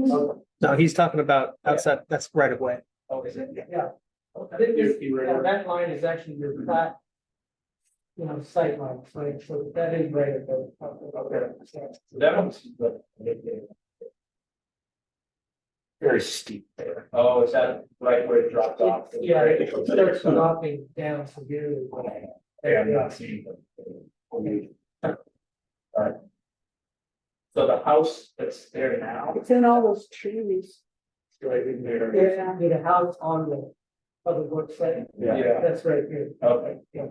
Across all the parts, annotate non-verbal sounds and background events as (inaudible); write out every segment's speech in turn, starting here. Oh, No, he's talking about outside, that's right of way. oh, is it? Yeah. I think this, yeah, that line is actually your flat. You know, sight line, so, so that is right at the. Okay. That one's. Very steep there. Oh, is that right where it dropped off? Yeah, it starts dropping down severely. Yeah, I'm not seeing them. Alright. So the house that's there now, It's in all those trees. it's right in there. There's the house on the public works site, Yeah, that's right here, okay. yeah.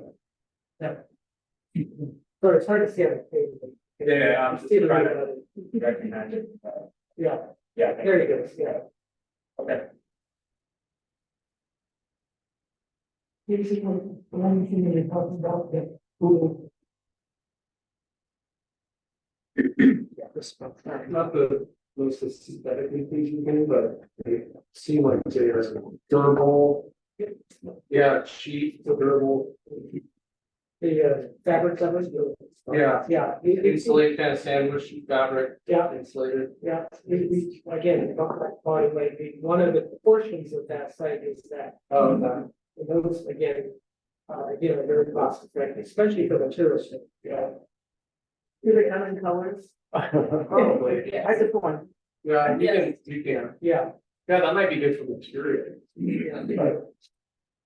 So it's hard to see on the page. but- Yeah, I'm just See the trying right to of it. recognize it. Uh, Yeah, Yeah. there you go, yeah. Okay. Here's the one, the one thing that you're talking about, the pool. Not the most aesthetically pleasing thing, but they seem like they're durable. Yeah, cheap, durable, The uh, fabric covers, the- yeah, yeah, we- we- insulated kind of sandwich fabric, yeah, insulated. yeah, we, we, again, body weight, we- one of the portions of that site is that. Um, uh, and Those, again, uh, again, are very cost effective, especially for the tourist, yeah. Do they come in colors? (laughs) Probably, I did one. yeah, you can, you can, Yeah, yeah, that might be good for material.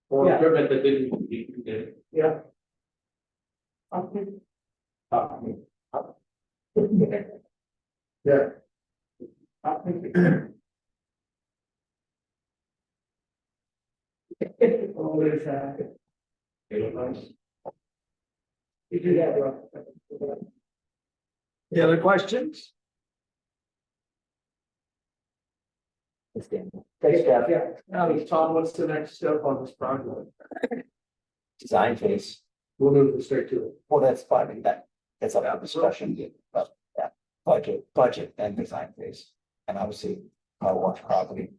Or Yeah. equipment that didn't need to be needed. yeah, Okay. Yeah. always, uh, you do that, right? Any other questions? Thanks, Jeff. Yeah, Now, Tom, what's the next step on this project? design phase. We'll move this straight to it. Well, that's fine, that, that's up for discussion, but yeah, budget, budget and design phase. And obviously, car wash property,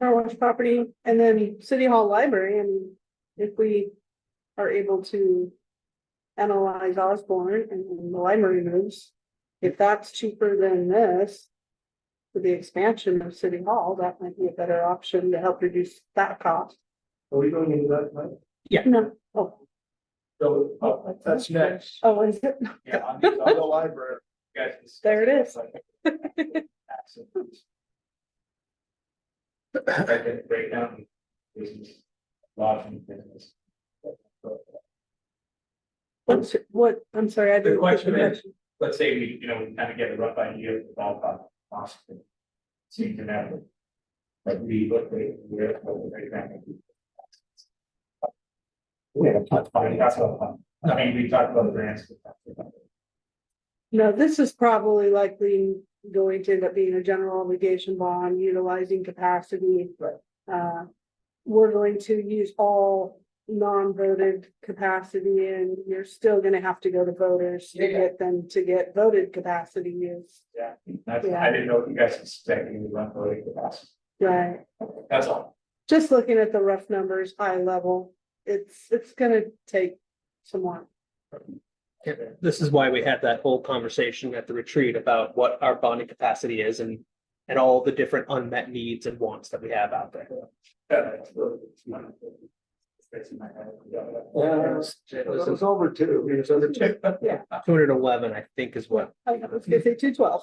Car wash property and then city hall library. I mean, if we are able to. Analyze Osborne and the library moves, if that's cheaper than this. For the expansion of city hall, that might be a better option to help reduce that cost. Are we going into that, Mike? No, oh, So, oh, That's next. oh, is it? (laughs) yeah, on the, on the library. you guys discussed There it is. that, so- I can break down business, law and business. What's, what, I'm sorry, I The didn't. question is, let's say we, you know, we kind of get a rough idea of the ballpark cost. Seems to matter. Like we look at where, what the breakdown would be. we haven't touched I mean, finance. that's all fun. I mean, we talked about grants. we talked about- No, this is probably likely going to end up being a general obligation bond utilizing capacity. Right. Uh, we're going to use all non-voted capacity and you're still gonna have to go to voters to Yeah, yeah. get them to get voted capacity used. That's, I didn't know if you guys expected me to run for the capacity. Right, That's all. just looking at the rough numbers, high level, it's, it's gonna take some more. This is why we had that whole conversation at the retreat about what our bonding capacity is and, and all the different unmet needs and wants that we have out there. This is over two. It's over two. Two hundred eleven, I think, is what I was gonna say (laughs) two twelve.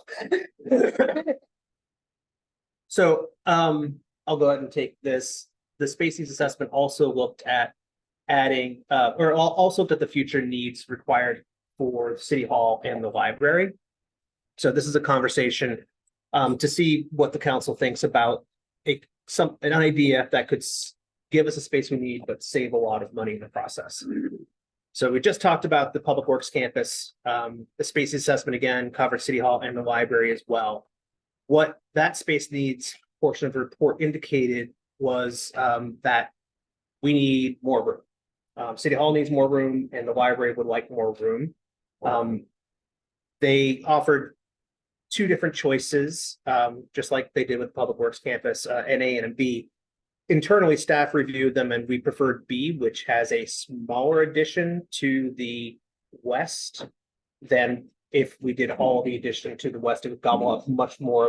So um, I'll go ahead and take this. The species assessment also looked at adding, uh, or al- also looked at the future needs required for City Hall and the library. So this is a conversation um, to see what the council thinks about a, some, an idea that could s- give us a space we need, but save a lot of money in the process. So we just talked about the Public Works Campus. Um, the species assessment again covered City Hall and the library as well what that space needs portion of the report indicated was um that we need more room. Um, City Hall needs more room and the library would like more room. Um, they offered two different choices, um, just like they did with Public Works Campus, uh, an A and a B. Internally, staff reviewed them and we preferred B, which has a smaller addition to the west than if we did all the addition to the west, it would gobble up much more